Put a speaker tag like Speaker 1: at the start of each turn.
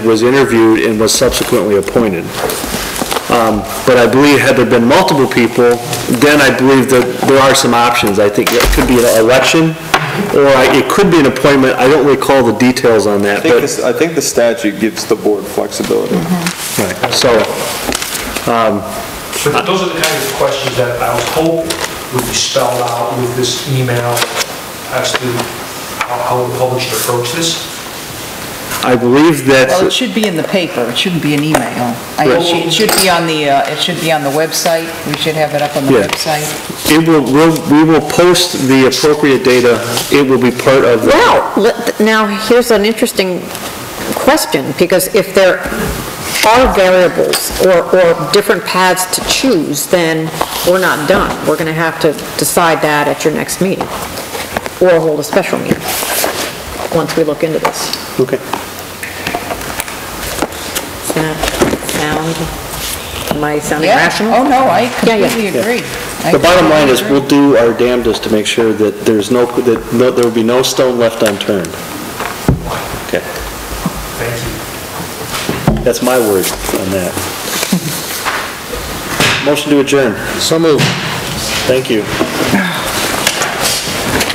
Speaker 1: was interviewed and was subsequently appointed. Um, But I believe had there been multiple people, then I believe that there are some options. I think it could be an election, or I- it could be an appointment. I don't recall the details on that,
Speaker 2: I think
Speaker 1: but,
Speaker 2: this, I think the statute gives the board flexibility.
Speaker 1: right, so,
Speaker 3: But those are the kinds of questions that I was hoping would be spelled out with this email as to how- how the public should approach this.
Speaker 1: I believe
Speaker 4: Well, it
Speaker 1: that,
Speaker 4: should be in the paper, it shouldn't be an email. I- It should- it should be on the, uh, it should be on the website, we should have it up on the
Speaker 1: Yeah.
Speaker 4: website.
Speaker 1: it will, we'll- we will post the appropriate data. It will be part of the...
Speaker 5: Well, let- now, here's an interesting question, because if there are variables or, or different paths to choose, then we're not done. We're going to have to decide that at your next meeting, or hold a special meeting, once we look into this.
Speaker 1: Okay.
Speaker 5: Does that sound, am I sounding
Speaker 4: Yeah.
Speaker 5: rational?
Speaker 4: Oh, no, I
Speaker 5: Yeah, yeah.
Speaker 4: completely agree. I
Speaker 1: The bottom line
Speaker 4: completely
Speaker 1: is,
Speaker 4: agree.
Speaker 1: we'll do our damnedest to make sure that there's no, that no- there will be no stone left unturned. Okay.
Speaker 3: Thank you.
Speaker 1: That's my word on that. Motion to adjourn. So moved. Thank you.